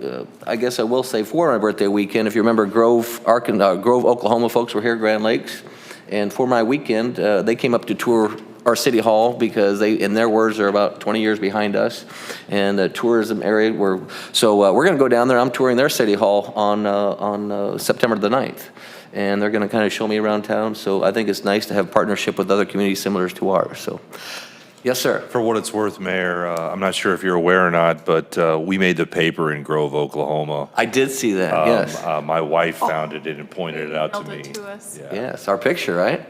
uh, I guess I will say for my birthday weekend, if you remember Grove, Arkan, uh, Grove, Oklahoma folks were here, Grand Lakes. And for my weekend, uh, they came up to tour our city hall because they, in their words, are about 20 years behind us. And the tourism area were, so uh, we're going to go down there. I'm touring their city hall on, uh, on uh, September the 9th. And they're going to kind of show me around town. So I think it's nice to have partnership with other communities similar to ours. So, yes, sir. For what it's worth, Mayor, uh, I'm not sure if you're aware or not, but uh, we made the paper in Grove, Oklahoma. I did see that, Um, yes. uh, My wife found it and pointed it out to Emailed me. Oh. it to us. Yeah. Yes, our picture, right?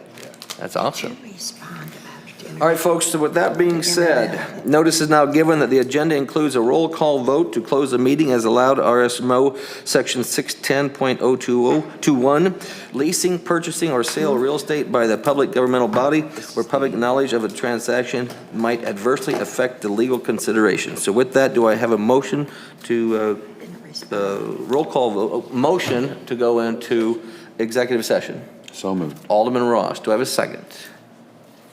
That's awesome. Respond about dinner. All right, folks, so with that being said, notice is now given that the agenda includes a roll call vote to close the meeting as allowed RSMO Section 610.02021, leasing, purchasing, or sale of real estate by the public governmental body where public knowledge of a transaction might adversely affect the legal consideration. So with that, do I have a motion to, Didn't uh, respond. uh, roll call, vote- uh, motion to go into executive session? So moved. Alderman Ross, do I have a second?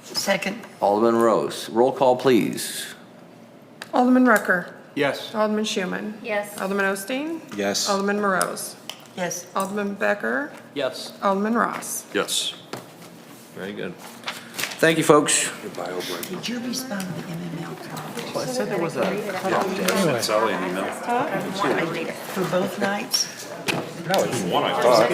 Second. Alderman Rose, roll call, please. Alderman Rucker. Yes. Alderman Schuman. Yes. Alderman Osteen. Yes. Alderman Morose. Yes. Alderman Becker. Yes. Alderman Ross. Yes. Very good. Thank you, folks. Did you respond to the MML call I said there was a. Sally an email. for both nights? One, I